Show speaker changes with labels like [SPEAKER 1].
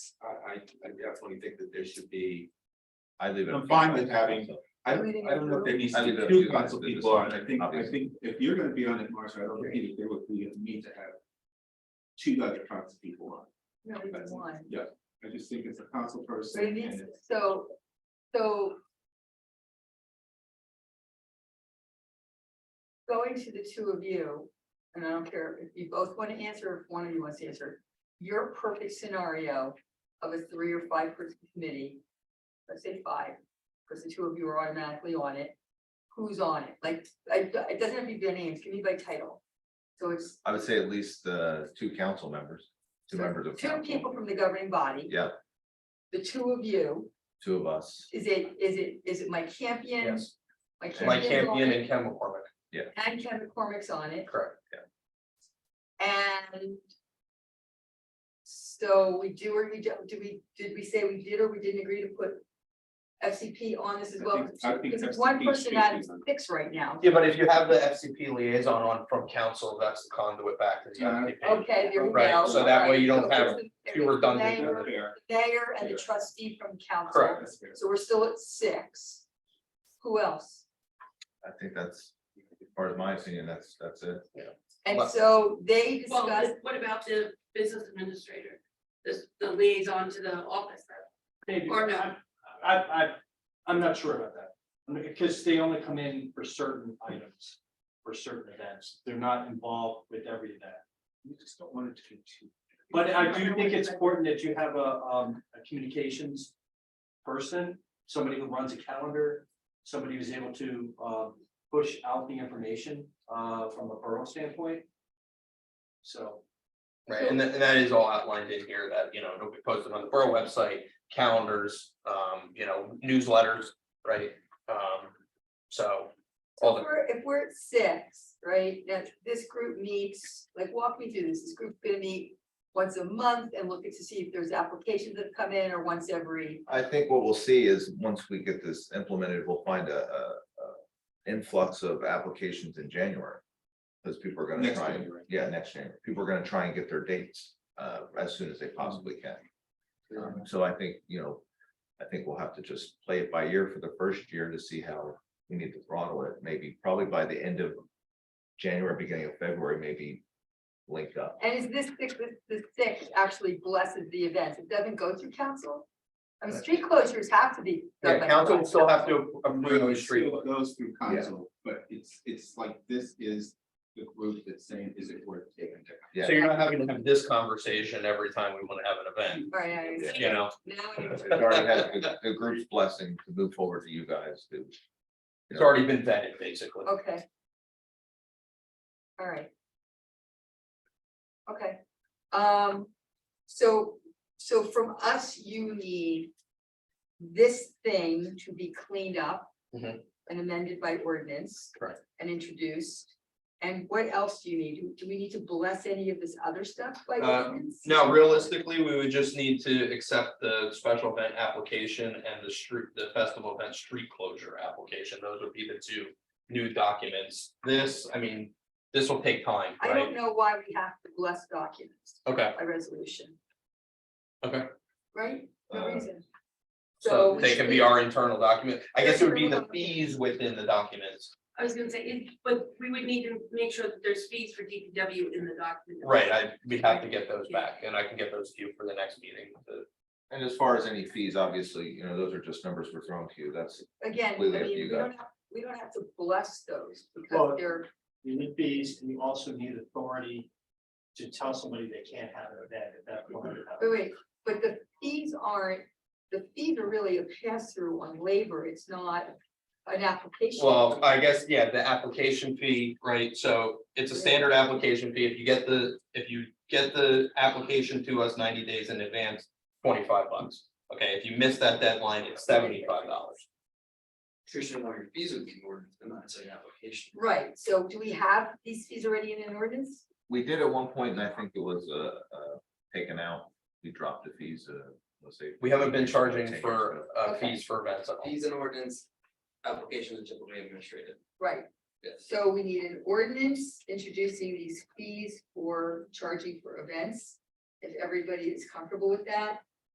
[SPEAKER 1] I, I, I definitely think that there should be,
[SPEAKER 2] I leave it.
[SPEAKER 1] I'm fine with having- I don't, I don't know if there needs to
[SPEAKER 2] I
[SPEAKER 1] be
[SPEAKER 2] think that
[SPEAKER 1] two
[SPEAKER 2] you-
[SPEAKER 1] council
[SPEAKER 2] that is
[SPEAKER 1] people on, I think, I
[SPEAKER 2] obvious.
[SPEAKER 1] think if you're gonna be on it, Marcia, I don't think it would be a need to have. Two other council people on,
[SPEAKER 3] No,
[SPEAKER 1] That's-
[SPEAKER 3] it's one.
[SPEAKER 1] I just think it's a council person.
[SPEAKER 3] But it
[SPEAKER 1] and
[SPEAKER 3] is,
[SPEAKER 1] it's-
[SPEAKER 3] so, so. Going to the two of you, and I don't care if you both want to answer, or if one of you wants to answer, your perfect scenario of a three or five person committee. Let's say five, because the two of you are automatically on it. Who's on it? Like, I- it doesn't have to be their names, it can be by title. So it's
[SPEAKER 2] I would say at least uh two council members, two members of
[SPEAKER 3] two
[SPEAKER 2] council,
[SPEAKER 3] people from the governing body.
[SPEAKER 2] Yeah.
[SPEAKER 3] The two of you.
[SPEAKER 2] two of us.
[SPEAKER 3] Is it, is it, is it Mike Campion?
[SPEAKER 4] Yes,
[SPEAKER 3] Mike
[SPEAKER 4] Mike
[SPEAKER 3] Campion's on
[SPEAKER 4] Campion
[SPEAKER 3] it,
[SPEAKER 4] and Ken McCormick,
[SPEAKER 3] And Kevin McCormick's on it,
[SPEAKER 4] correct.
[SPEAKER 3] and. So we do or we don't, do we, did we say we did or we didn't agree to put FCP on this as
[SPEAKER 1] I
[SPEAKER 3] well?
[SPEAKER 1] think- I think
[SPEAKER 3] Because it's one
[SPEAKER 1] FCP should
[SPEAKER 3] person
[SPEAKER 1] be
[SPEAKER 3] out of
[SPEAKER 1] on.
[SPEAKER 3] six right now,
[SPEAKER 4] Yeah, but if you have the FCP liaison on from council, that's the conduit back to the
[SPEAKER 1] Yeah.
[SPEAKER 4] FCP.
[SPEAKER 3] okay, there we go.
[SPEAKER 4] Right, so that way you don't
[SPEAKER 3] Alright, so
[SPEAKER 4] have
[SPEAKER 3] it's
[SPEAKER 4] few
[SPEAKER 3] the
[SPEAKER 4] redundant
[SPEAKER 3] mayor,
[SPEAKER 1] That's fair,
[SPEAKER 3] the Mayor and the
[SPEAKER 1] Yeah.
[SPEAKER 3] trustee from council,
[SPEAKER 4] Correct.
[SPEAKER 1] that's fair.
[SPEAKER 3] so we're still at six. Who else?
[SPEAKER 2] I think that's, as far as my opinion, that's, that's it.
[SPEAKER 3] And
[SPEAKER 4] Well-
[SPEAKER 3] so they
[SPEAKER 5] Well,
[SPEAKER 3] discussed.
[SPEAKER 5] but what about the business administrator, this, the liaison to the office?
[SPEAKER 6] Maybe.
[SPEAKER 5] Or no.
[SPEAKER 6] I, I, I'm not sure about that, I mean, because they only come in for certain items, for certain events, they're not involved with every event.
[SPEAKER 1] You just don't want it to be two.
[SPEAKER 6] But I do think it's important that you have a, um, a communications person, somebody who runs a calendar, somebody who's able to, um, push out the information, uh, from a borough standpoint. So.
[SPEAKER 4] Right, and that, and that is all outlined in here that, you know, it'll be posted on the borough website, calendars, um, you know, newsletters, right? Um, so all
[SPEAKER 3] So if
[SPEAKER 4] the
[SPEAKER 3] we're, if we're at six, right, that this group meets, like, walk me through this, this group's gonna meet once a month and look to see if there's applications that come in or once every,
[SPEAKER 2] I think what we'll see is, once we get this implemented, we'll find a, a, a influx of applications in January. Because people are gonna
[SPEAKER 1] Next
[SPEAKER 2] try, and-
[SPEAKER 1] January.
[SPEAKER 2] yeah, next January, people are gonna try and get their dates, uh, as soon as they possibly can. Um, So I think, you know, I think we'll have to just play it by ear for the first year to see how we need to throttle it, maybe probably by the end of January, beginning of February, maybe link up.
[SPEAKER 3] and is this six, this, this six actually blesses the events, it doesn't go through council? I mean, street closures have to be. done
[SPEAKER 4] Uh, Yeah,
[SPEAKER 3] by
[SPEAKER 4] council will
[SPEAKER 3] council.
[SPEAKER 4] still have to approve the
[SPEAKER 1] It
[SPEAKER 4] street.
[SPEAKER 1] still
[SPEAKER 4] law.
[SPEAKER 1] goes through council, but it's, it's like, this is the group that's saying, is it worth taking? to
[SPEAKER 2] Yeah.
[SPEAKER 4] So you're not having to have this conversation every time we want to have an event,
[SPEAKER 3] Right, I understand.
[SPEAKER 4] you know?
[SPEAKER 3] now, I
[SPEAKER 2] It already had the- the group's blessing to move forward to you guys to.
[SPEAKER 4] It's already been vetted, basically.
[SPEAKER 3] Okay. All right. Okay, um, so, so from us, you need this thing to be cleaned up.
[SPEAKER 4] Mhm.
[SPEAKER 3] And amended by ordinance.
[SPEAKER 4] Correct.
[SPEAKER 3] And introduced, and what else do you need? Do we need to bless any of this other stuff by
[SPEAKER 4] Uh,
[SPEAKER 3] ordinance?
[SPEAKER 4] Now, realistically, we would just need to accept the special event application and the street, the festival event street closure application. Those would be the two new documents. This, I mean, this will take time,
[SPEAKER 3] I don't
[SPEAKER 4] right?
[SPEAKER 3] know why we have to bless documents
[SPEAKER 4] Okay,
[SPEAKER 3] by resolution.
[SPEAKER 4] Okay.
[SPEAKER 3] Right? No
[SPEAKER 2] Uh,
[SPEAKER 3] reason.
[SPEAKER 4] so
[SPEAKER 3] we
[SPEAKER 4] they
[SPEAKER 3] should
[SPEAKER 4] can be our internal document. I guess it would be the fees within the documents.
[SPEAKER 5] I was gonna say, it- but we would need to make sure that there's fees for DPW in the document.
[SPEAKER 4] Right, I, we have to get those back and I can get those to you for the next meeting. The-
[SPEAKER 2] And as far as any fees, obviously, you know, those are just numbers we're throwing to you. That's,
[SPEAKER 3] Again, I
[SPEAKER 2] completely up
[SPEAKER 3] mean,
[SPEAKER 2] to you
[SPEAKER 3] we don't have, we don't have to bless those because
[SPEAKER 6] Well-
[SPEAKER 3] they're,
[SPEAKER 6] You need fees and you also need authority to tell somebody they can't have an event at that point.
[SPEAKER 3] wait, wait, but the fees aren't, the fees are really a pass through on labor. It's not an application.
[SPEAKER 4] Well, I guess, yeah, the application fee, right, so it's a standard application fee, if you get the, if you get the application to us ninety days in advance, twenty-five bucks. Okay, if you miss that deadline, it's seventy-five dollars.
[SPEAKER 7] Christian, all your fees would be more than that, it's an application.
[SPEAKER 3] Right, so do we have these fees already in an ordinance?
[SPEAKER 2] we did at one point and I think it was, uh, uh, taken out. We dropped the fees, uh, let's say.
[SPEAKER 4] We haven't been charging
[SPEAKER 2] 10 years ago.
[SPEAKER 4] for uh
[SPEAKER 3] Okay.
[SPEAKER 4] fees for events at all.
[SPEAKER 7] Fees and ordinance, applications are typically administrative,
[SPEAKER 3] Right,
[SPEAKER 7] yes.
[SPEAKER 3] so we need an ordinance introducing these fees for charging for events. If everybody is comfortable with that,